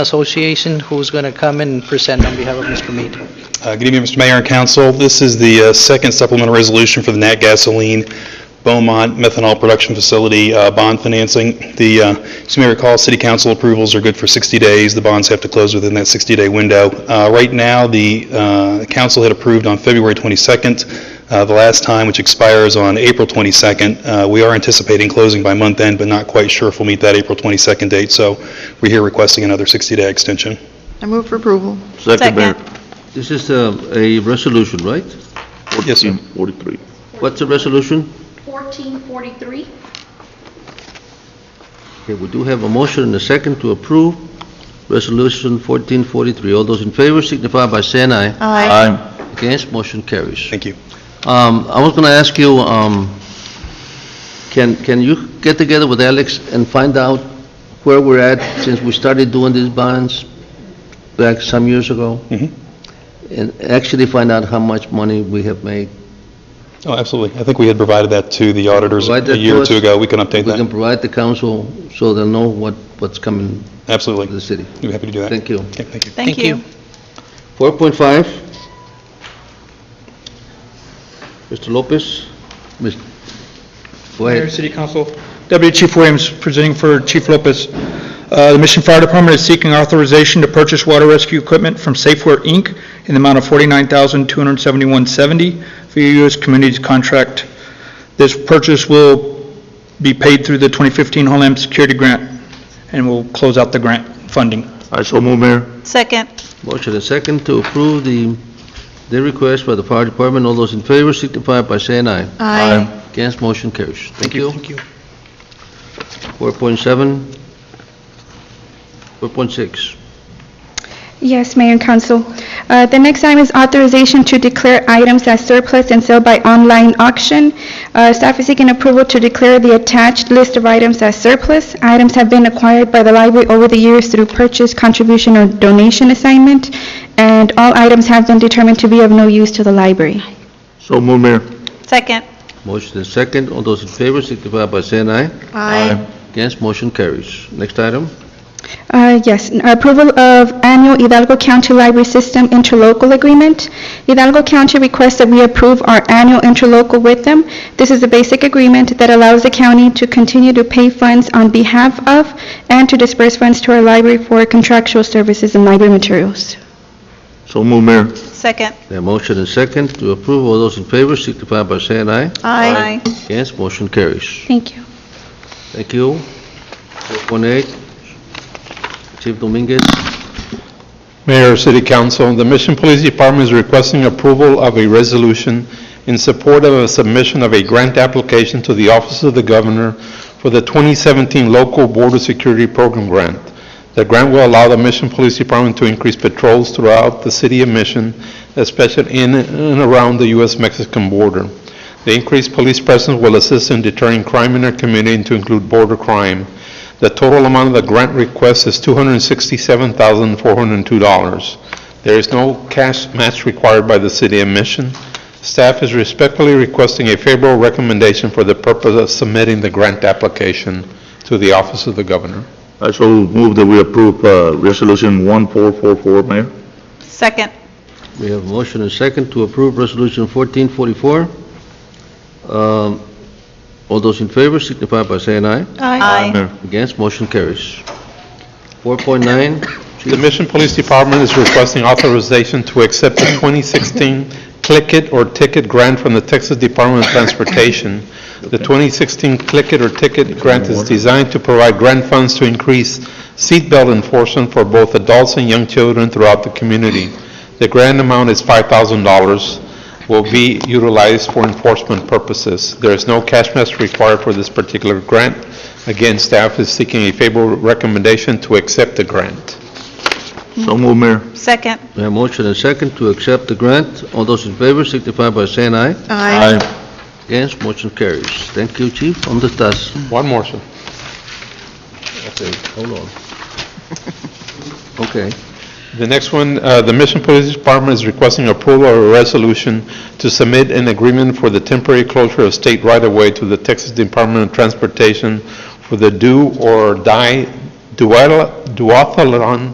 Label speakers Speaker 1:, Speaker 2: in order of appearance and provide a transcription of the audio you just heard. Speaker 1: Association, who's going to come and present on behalf of Mr. Mead.
Speaker 2: Uh, Good evening, Mr. Mayor and Council. This is the uh, second supplemental resolution for the Nat Gasoline Beaumont Methanol Production Facility uh, bond financing. The, uh, as you may recall, city council approvals are good for 60 days. The bonds have to close within that 60-day window. Uh, Right now, the uh, council had approved on February 22nd, uh, the last time, which expires on April 22nd. Uh, We are anticipating closing by month end, but not quite sure if we'll meet that April 22nd date, so we're here requesting another 60-day extension.
Speaker 3: I move for approval.
Speaker 4: Second, Mayor.
Speaker 5: This is uh, a resolution, right?
Speaker 2: Yes, sir.
Speaker 4: 43.
Speaker 5: What's the resolution?
Speaker 6: 1443.
Speaker 5: Okay, we do have a motion and a second to approve Resolution 1443. All those in favor signify by saying aye.
Speaker 3: Aye.
Speaker 4: Aye.
Speaker 5: Against, motion carries.
Speaker 2: Thank you.
Speaker 5: Um, I was going to ask you, um, can, can you get together with Alex and find out where we're at since we started doing these bonds back some years ago?
Speaker 2: Mhm.
Speaker 5: And actually find out how much money we have made?
Speaker 2: Oh, absolutely. I think we had provided that to the auditors
Speaker 5: Provide
Speaker 2: a
Speaker 5: that
Speaker 2: year
Speaker 5: to
Speaker 2: or two
Speaker 5: us.
Speaker 2: ago. We can update
Speaker 5: We can
Speaker 2: that.
Speaker 5: provide the council so they'll know what, what's coming to
Speaker 2: Absolutely.
Speaker 5: the city.
Speaker 2: We're happy to do that.
Speaker 5: Thank you.
Speaker 2: Okay, thank you.
Speaker 3: Thank you.
Speaker 5: 4.5. Mr. Lopez? Mis- Go
Speaker 7: Mayor,
Speaker 5: ahead.
Speaker 7: City Council, Deputy Chief Williams presenting for Chief Lopez. Uh, The Mission Fire Department is seeking authorization to purchase water rescue equipment from Safeware, Inc. in the amount of $49,271.70 for U.S. Communities Contract. This purchase will be paid through the 2015 Homeland Security Grant, and will close out the grant funding.
Speaker 4: I so move, Mayor.
Speaker 3: Second.
Speaker 5: Motion and second to approve the, the request by the fire department. All those in favor signify by saying aye.
Speaker 3: Aye.
Speaker 5: Against, motion carries. Thank you.
Speaker 1: Thank you.
Speaker 5: 4.7. 4.6.
Speaker 8: Yes, Mayor and Council. Uh, The next item is authorization to declare items as surplus and sell by online auction. Uh, Staff is seeking approval to declare the attached list of items as surplus. Items have been acquired by the library over the years through purchase, contribution, or donation assignment, and all items have been determined to be of no use to the library.
Speaker 4: So move, Mayor.
Speaker 3: Second.
Speaker 5: Motion and second. All those in favor signify by saying aye.
Speaker 3: Aye.
Speaker 5: Against, motion carries. Next item.
Speaker 8: Uh, Yes, n- approval of annual Hidalgo County Library System interlocal agreement. Hidalgo County requests that we approve our annual interlocal with them. This is a basic agreement that allows the county to continue to pay funds on behalf of and to disperse funds to our library for contractual services and library materials.
Speaker 4: So move, Mayor.
Speaker 3: Second.
Speaker 5: The motion and second to approve. All those in favor signify by saying aye.
Speaker 3: Aye.
Speaker 5: Against, motion carries.
Speaker 8: Thank you.
Speaker 5: Thank you. 4.8, Chief Dominguez.
Speaker 9: Mayor, City Council, the Mission Police Department is requesting approval of a resolution in support of a submission of a grant application to the Office of the Governor for the 2017 Local Border Security Program Grant. The grant will allow the Mission Police Department to increase patrols throughout the city of Mission, especially in and around the U.S.-Mexican border. The increased police presence will assist in deterring crime in our community to include border crime. The total amount of the grant request is $267,402. There is no cash match required by the city of Mission. Staff is respectfully requesting a favorable recommendation for the purpose of submitting the grant application to the Office of the Governor.
Speaker 4: I so move that we approve uh, Resolution 1444, Mayor.
Speaker 3: Second.
Speaker 5: We have a motion and second to approve Resolution 1444. Um, All those in favor signify by saying aye.
Speaker 3: Aye.
Speaker 4: Mayor.
Speaker 5: Against, motion carries. 4.9,
Speaker 9: The Mission Police Department is requesting authorization to accept the 2016 Click It or Ticket Grant from the Texas Department of Transportation. The 2016 Click It or Ticket Grant is designed to provide grant funds to increase seatbelt enforcement for both adults and young children throughout the community. The grant amount is $5,000, will be utilized for enforcement purposes. There is no cash match required for this particular grant. Again, staff is seeking a favorable recommendation to accept the grant.
Speaker 4: So move, Mayor.
Speaker 3: Second.
Speaker 5: we have a motion and second to accept the grant. All those in favor signify by saying aye.
Speaker 4: Aye.
Speaker 5: Against, motion carries. Thank you, Chief. ¿Dónde estás?
Speaker 9: One more, sir.
Speaker 5: Okay, hold on. Okay.
Speaker 9: The next one, uh, the Mission Police Department is requesting approval of a resolution to submit an agreement for the temporary closure of state right-of-way to the Texas Department of Transportation for the Do or Die Duathlon